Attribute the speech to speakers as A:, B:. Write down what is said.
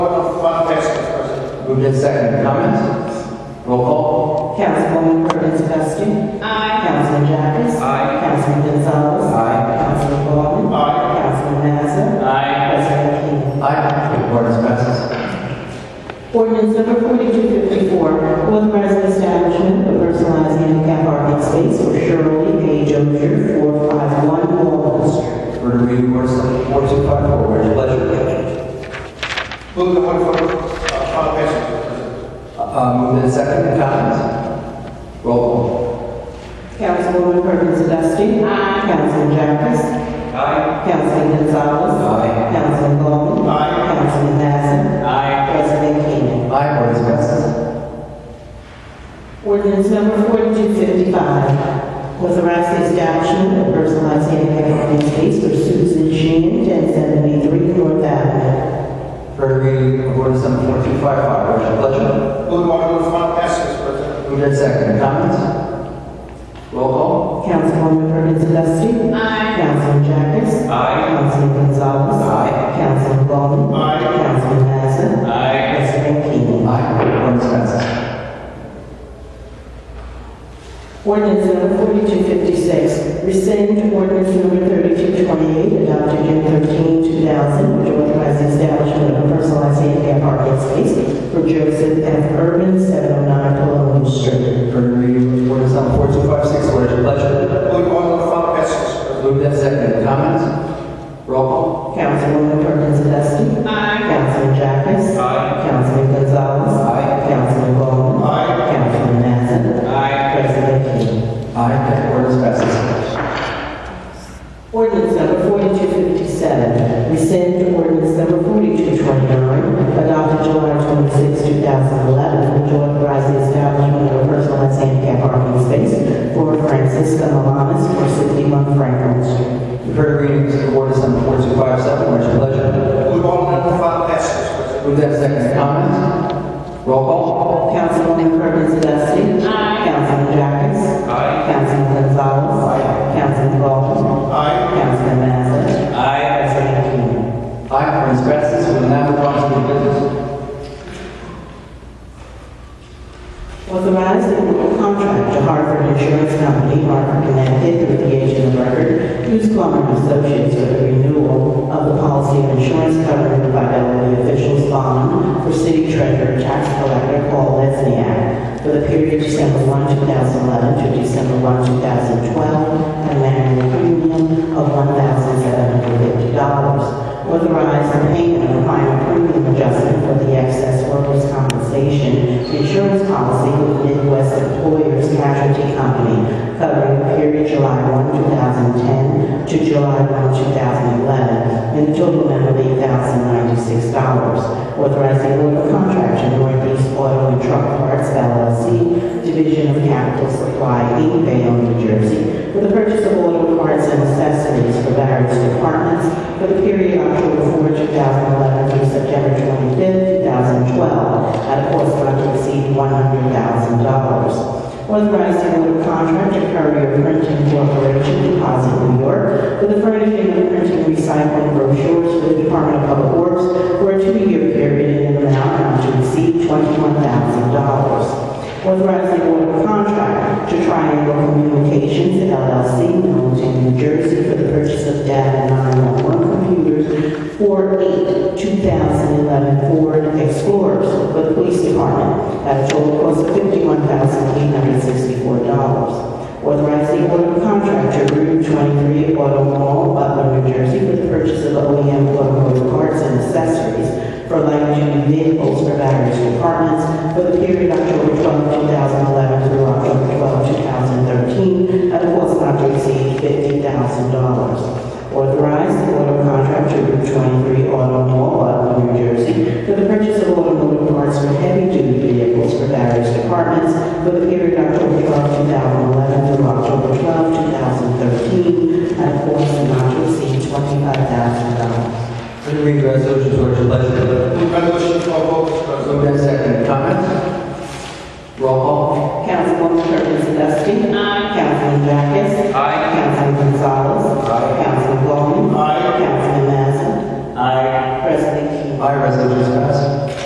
A: Moved in second, comments? Roll call.
B: Councilwoman Perkins Dusting.
C: Aye.
B: Councilman Jacobs.
A: Aye.
B: Councilman Gonzalez.
A: Aye.
B: Councilman Ballmer.
A: Aye.
B: Councilman Mazza.
A: Aye.
B: President King.
A: Aye. Ordinance passes.
B: Ordinance number 4254, authorizing establishment of personalized handicap parking space for Shirley Page Ogier, 451 Walnut Street.
A: Heard the reading of ordinance number 4254, what is your pleasure?
D: Move the one for, uh, final passage.
A: Uh, Moved in second, comments? Roll call.
B: Councilwoman Perkins Dusting. Aye. Councilman Jacobs.
A: Aye.
B: Councilman Gonzalez.
A: Aye.
B: Councilman Ballmer.
D: Aye.
B: Councilman Mazza.
A: Aye.
B: President King.
A: Aye, ordinance passes.
B: Ordinance number 4255, authorizing establishment of personalized handicap parking space for Susan Sheen, 1073 North Avenue.
A: Heard the reading of ordinance number 4255, what is your pleasure?
D: Move the article for final passage, Mr. President.
A: Moved in second, comments? Roll call.
B: Councilwoman Perkins Dusting.
C: Aye.
B: Councilman Jacobs.
A: Aye.
B: Councilman Gonzalez.
A: Aye.
B: Councilman Ballmer.
D: Aye.
B: Councilman Mazza.
A: Aye.
B: President King.
A: Aye, ordinance passes.
B: Ordinance number 4256, rescind ordinance number 3228 adopted June 13, 2000, which authorized the establishment of personalized handicap parking space for Joseph F. Urban, 709 Pelham Street.
A: Heard the reading of ordinance number 4256, what is your pleasure?
D: Move the article for final passage, Mr. President.
A: Moved in second, comments? Roll call.
B: Councilwoman Perkins Dusting.
C: Aye.
B: Councilman Jacobs.
A: Aye.
B: Councilman Gonzalez.
A: Aye.
B: Councilman Ballmer.
D: Aye.
B: Councilman Mazza.
A: Aye.
B: President King.
A: Aye, that ordinance passes.
B: Ordinance number 4257, rescind ordinance number 4229, adopted July 26, 2011, which authorized the establishment of a personalized handicap parking space for Francisca Malamas for 61 Franklin Street.
A: You've heard the readings of ordinance number 4257, what is your pleasure?
D: Move the article for final passage, Mr. President.
A: Move that second comment. Roll call.
B: Councilwoman Perkins Dusting.
C: Aye.
B: Councilman Jacobs.
A: Aye.
B: Councilman Gonzalez.
A: Aye.
B: Councilman Baldwin.
D: Aye.
B: Councilman Mazza.
A: Aye.
B: President King.
A: Aye, ordinance passes, we will now move on to new business.
B: Authorize the renewal contract to Hartford Insurance Company, Hartford, Connecticut, through the agent of record, Hughes Plummer and Associates, for the renewal of the policy of insurance covered by elderly officials bond for city treasurer, tax collector, Paul Lesniak, for the period December 1, 2011 to December 1, 2012, at an annual premium of $1,750 authorize the payment of final premium adjustment for the excess workers' compensation insurance policy with Midwest Employers Casualty Company covering the period July 1, 2010 to July 1, 2011, in a total amount of $8,096. Authorize the award of contract to Northeast Auto and Truck Parts LLC, Division of Capital Supply, Inc., Bayonne, New Jersey, for the purchase of auto parts and accessories for various departments for the period October 4, 2011 through September 25, 2012, at a cost not to exceed $100,000. Authorizing order contract to Courier Printing Corporation, Deposit New York, for the furnishing of printing and recycling brochures for the Department of Public Works for a two-year period in an amount not to exceed $21,000. Authorizing award of contract to Triangle Communications LLC, Milton, New Jersey, for the purchase of data 911 computers for eight 2011 Ford Explorers for the police department at a total cost of $51,864. Authorize the order of contract to Route 23 Auto Mall, Butler, New Jersey, for the purchase of OEM automotive parts and accessories for light-duty vehicles for various departments for the period October 12, 2011 through October 12, 2013, at a cost not to exceed $50,000. Authorize the order of contract to Route 23 Auto Mall, Butler, New Jersey, for the purchase of automotive parts for heavy-duty vehicles for various departments for the period October 12, 2011 through October 12, 2013, at a cost not to exceed $25,000.
A: Heard the reading of resolutions, what is your pleasure?